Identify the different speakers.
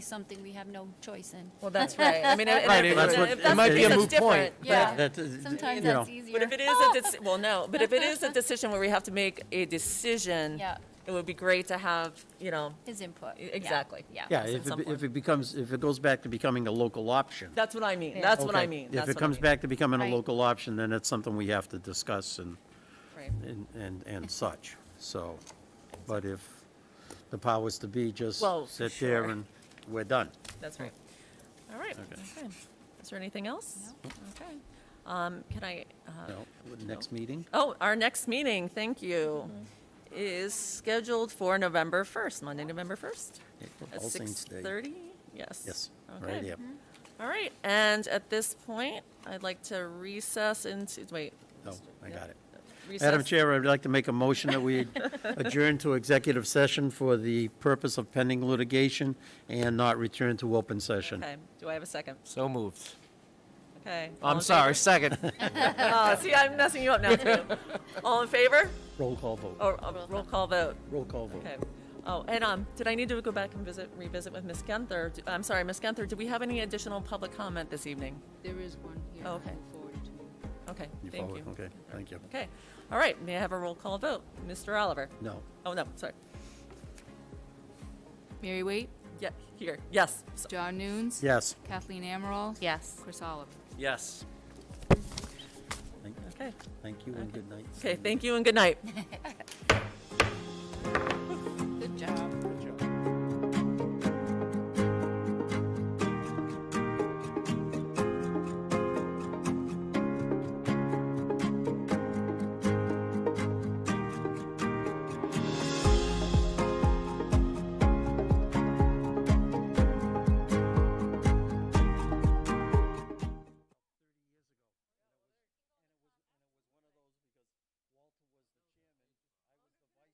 Speaker 1: something we have no choice in.
Speaker 2: Well, that's right. I mean, if
Speaker 3: Right,
Speaker 2: if
Speaker 3: it- that's
Speaker 2: it's-
Speaker 3: what-
Speaker 2: if
Speaker 3: it
Speaker 2: that's
Speaker 3: might
Speaker 2: the
Speaker 3: be a
Speaker 2: case, that's
Speaker 3: moot point,
Speaker 2: different.
Speaker 3: but
Speaker 2: Yeah.
Speaker 3: that- uh,
Speaker 1: Sometimes
Speaker 3: you know.
Speaker 1: that's easier.
Speaker 2: But if it is a, deci- well, no, but if it is a decision where we have to make a decision,
Speaker 1: Yeah.
Speaker 2: it would be great to have, you know,
Speaker 1: His input.
Speaker 2: E- exactly.
Speaker 1: Yeah.
Speaker 2: Yeah.
Speaker 3: Yeah,
Speaker 2: in
Speaker 3: if
Speaker 2: some
Speaker 3: it,
Speaker 2: form.
Speaker 3: if it becomes, if it goes back to becoming a local option.
Speaker 2: that's what I mean.
Speaker 1: Yeah.
Speaker 2: That's what I
Speaker 3: Okay.
Speaker 2: mean.
Speaker 3: If
Speaker 2: That's
Speaker 3: it
Speaker 2: what I
Speaker 3: comes
Speaker 2: mean.
Speaker 3: back to becoming a
Speaker 1: Right.
Speaker 3: local option, then it's something we have to discuss and,
Speaker 2: Right.
Speaker 3: and, and and such, so. But if the powers to be just
Speaker 2: Well, for
Speaker 3: sit there
Speaker 2: sure.
Speaker 3: and we're done.
Speaker 2: That's right. All right.
Speaker 3: Okay.
Speaker 2: Okay. Is there anything else? Okay. Um, Can I, uh,
Speaker 3: No, Next meeting?
Speaker 2: oh, our next meeting, thank you, is scheduled for November 1st, Monday, November 1st, at
Speaker 3: All Saints Day.
Speaker 2: 6:30? Yes.
Speaker 3: Yes,
Speaker 2: Okay.
Speaker 3: right, yeah.
Speaker 2: All right, and at this point, I'd like to recess into, wait.
Speaker 3: No, I got it. Madam
Speaker 2: recess-
Speaker 3: Chair, I'd like to make a motion that we adjourn to executive session for the purpose of pending litigation and not return to open session.
Speaker 2: Okay, do I have a second?
Speaker 4: So moved.
Speaker 2: Okay. all in
Speaker 4: I'm
Speaker 2: favor?
Speaker 4: sorry, second.
Speaker 2: Oh, see, I'm messing you up now, too. All in favor?
Speaker 3: Roll call vote,
Speaker 2: Or uh, roll call vote?
Speaker 3: roll call vote.
Speaker 2: Okay. Oh, and, um, did I need to go back and visit, revisit with Ms. Gunther? Do- I'm sorry, Ms. Gunther, do we have any additional public comment this evening?
Speaker 5: There is one here.
Speaker 2: Oh,
Speaker 5: I'll
Speaker 2: okay.
Speaker 5: forward it to you.
Speaker 2: Okay,
Speaker 3: You
Speaker 2: thank
Speaker 3: follow-
Speaker 2: you.
Speaker 3: Okay, thank you.
Speaker 2: Okay, all right, may I have a roll call vote? Mr. Oliver?
Speaker 3: No.
Speaker 2: Oh, no, sorry.
Speaker 5: Mary Waite,
Speaker 2: Yeah, here, yes. So-
Speaker 5: John Noons.
Speaker 3: Yes.
Speaker 5: Kathleen Amaral.
Speaker 1: Yes.
Speaker 5: Chris Oliver.
Speaker 4: Yes.
Speaker 3: Thank-
Speaker 2: Okay,
Speaker 3: Thank you and good night.
Speaker 2: okay, thank you and good night.